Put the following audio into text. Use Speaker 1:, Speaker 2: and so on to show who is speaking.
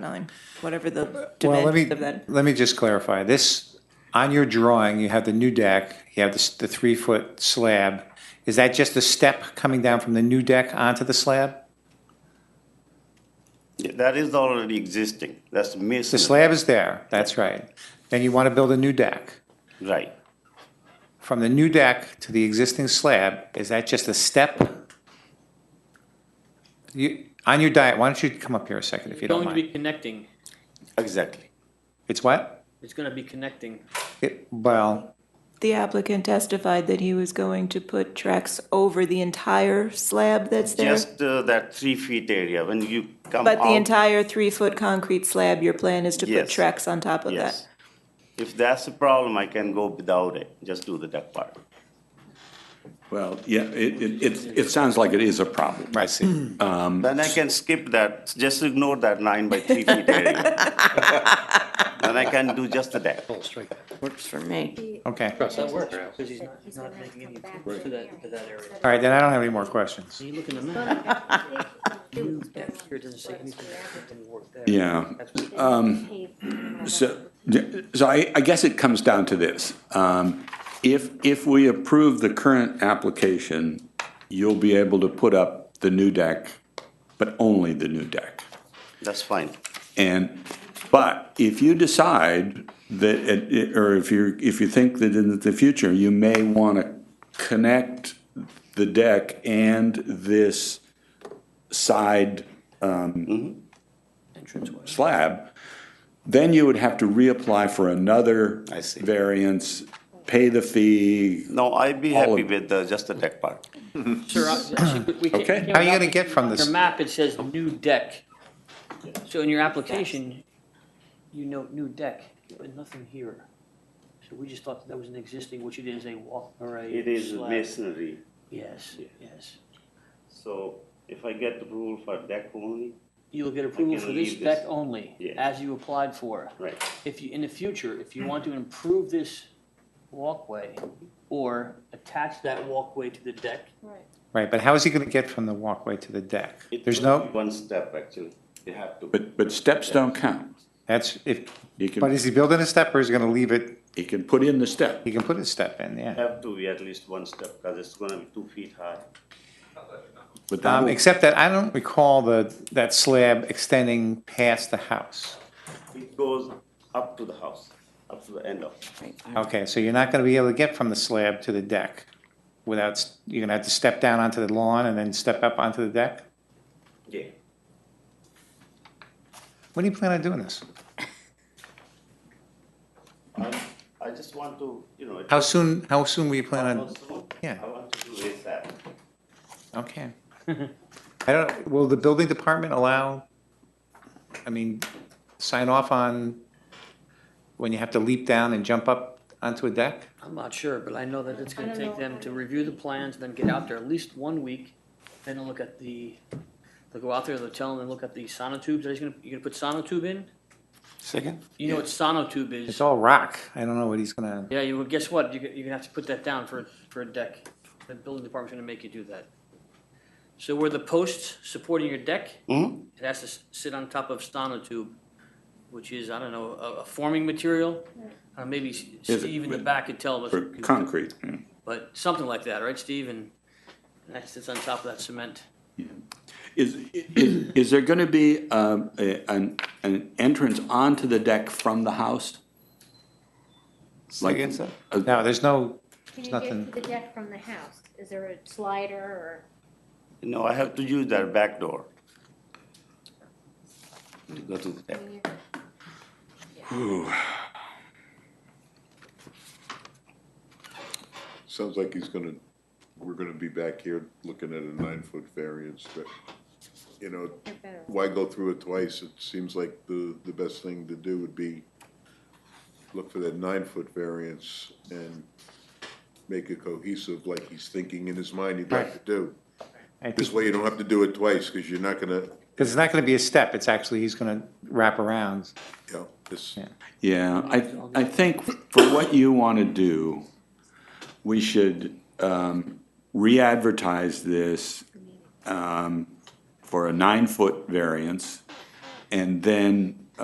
Speaker 1: nine, whatever the
Speaker 2: Well, let me,
Speaker 1: dimensions of that.
Speaker 2: let me just clarify. This, on your drawing, you have the new deck, you have the, s- the three-foot slab. Is that just a step coming down from the new deck onto the slab?
Speaker 3: That is already existing. That's
Speaker 2: The
Speaker 3: masonry.
Speaker 2: slab is there, that's right. Then you want to build a new deck.
Speaker 3: Right.
Speaker 2: From the new deck to the existing slab, is that just a step? You, on your diet, why don't you come up here a second if you don't
Speaker 4: going to be
Speaker 2: mind?
Speaker 4: connecting.
Speaker 3: Exactly.
Speaker 2: It's what?
Speaker 4: It's going to be connecting.
Speaker 2: It- Well,
Speaker 1: The applicant testified that he was going to put tracks over the entire slab that's there.
Speaker 3: Just uh, that three feet area when you come out.
Speaker 1: But the entire three-foot concrete slab, your plan is to put
Speaker 3: Yes.
Speaker 1: tracks on top of that?
Speaker 3: Yes. If that's a problem, I can go without it. Just do the deck part.
Speaker 5: Well, yeah, it, it, it, it sounds like it is a problem.
Speaker 2: I see.
Speaker 3: Then I can skip that. Just ignore that nine by three feet area. Then I can do just the deck.
Speaker 6: Works for me.
Speaker 2: Okay.
Speaker 4: That works because he's not, he's not making any improvements to that, to that area.
Speaker 2: All right, then I don't have any more questions.
Speaker 4: So you look in the map, here it doesn't say anything about it didn't work there.
Speaker 5: Yeah.
Speaker 4: That's what-
Speaker 2: Um,
Speaker 5: So, so I, I guess it comes down to this. Um, If, if we approve the current application, you'll be able to put up the new deck, but only the new deck.
Speaker 3: That's fine.
Speaker 5: And, but if you decide that, it- it- or if you, if you think that in the future, you may want to connect the deck and this side
Speaker 3: Mm-hmm.
Speaker 5: um, slab, then you would have to reapply for another
Speaker 3: I see.
Speaker 5: variance, pay the fee.
Speaker 3: No, I'd be
Speaker 5: All
Speaker 3: happy
Speaker 5: of-
Speaker 3: with the, just the deck part.
Speaker 4: Sir, I- we- we can't-
Speaker 5: Okay.
Speaker 4: we can't-
Speaker 2: How are you gonna get from this-
Speaker 4: Your map, it says new deck. So in your application, you note new deck, but nothing here. So we just thought that was an existing, which it is a wall or a.
Speaker 3: It is
Speaker 4: slab.
Speaker 3: masonry.
Speaker 4: Yes, yes.
Speaker 3: So if I get the rule for deck only,
Speaker 4: You will get approval for this
Speaker 3: leave this.
Speaker 4: deck only,
Speaker 3: Yeah.
Speaker 4: as you applied for.
Speaker 3: right.
Speaker 4: If you, in the future, if you want to improve this walkway or attach that walkway to the deck,
Speaker 2: Right, but how is he going to get from the walkway to the deck?
Speaker 3: It
Speaker 2: There's
Speaker 3: will
Speaker 2: no,
Speaker 3: be One step, actually. You have to.
Speaker 5: But, but steps don't count.
Speaker 2: that's, if,
Speaker 5: You can-
Speaker 2: but is he building a step or is he going to leave it,
Speaker 5: You can put in the step.
Speaker 2: he can put a step in, yeah.
Speaker 3: Have to be at least one step, because it's gonna be two feet high.
Speaker 5: but
Speaker 2: Um,
Speaker 5: that'll-
Speaker 2: except that I don't recall the, that slab extending past the house.
Speaker 3: It goes up to the house, up to the end of.
Speaker 2: Okay, so you're not going to be able to get from the slab to the deck without, s- you're going to have to step down onto the lawn and then step up onto the deck?
Speaker 3: Yeah.
Speaker 2: When do you plan on doing this?
Speaker 3: I, Um, I just want to, you know. it-
Speaker 2: How soon, how soon will you plan on,
Speaker 3: Also,
Speaker 2: yeah.
Speaker 3: I want to do ASAP.
Speaker 2: okay. I don't, will the building department allow, I mean, sign off on when you have to leap down and jump up onto a deck?
Speaker 4: I'm not sure, but I know that it's gonna take them to review the plans, then get out there at least one week, then they'll look at the, they'll go out there, they'll tell them, they'll look at the sonotubes, are you gonna, you gonna put sonotube in?
Speaker 3: Second?
Speaker 4: You know what sonotube is?
Speaker 2: It's all rock. I don't know what he's gonna.
Speaker 4: Yeah, you, well, guess what, you're, gonna- you're gonna have to put that down for, for a deck, the building department's gonna make you do that. So where the posts supporting your deck,
Speaker 5: Mm-hmm.
Speaker 3: hmm
Speaker 4: it has to s- sit on top of sonotube, which is, I don't know, a, a forming material? Uh, maybe S-
Speaker 5: Is it-
Speaker 4: Steve in the back could tell us.
Speaker 5: For concrete. yeah.
Speaker 4: but something like that, right, Steve? And that sits on top of that cement.
Speaker 5: Is, is, is there gonna be, um, a, an, an entrance onto the deck from the house? Like- uh,
Speaker 2: No, there's no,
Speaker 7: Can you
Speaker 2: There's nothing-
Speaker 7: get to the deck from the house? Is there a slider or?
Speaker 3: No, I have to use that back door. To go to the deck.
Speaker 8: Sounds like he's gonna, we're gonna be back here looking at a nine-foot variance, but, you know,
Speaker 7: They're better.
Speaker 8: why go through it twice? It seems like the, the best thing to do would be look for that nine-foot variance and make it cohesive like he's thinking in his mind he'd like to do.
Speaker 2: I think,
Speaker 8: This way you don't have to do it twice, because you're not gonna,
Speaker 2: because it's not gonna be a step. It's actually, he's gonna wrap around.
Speaker 8: you know, this,
Speaker 2: Yeah.
Speaker 5: Yeah, I, I think for what you wanna do, we should, um, re-advertise this, um, for a nine-foot variance and then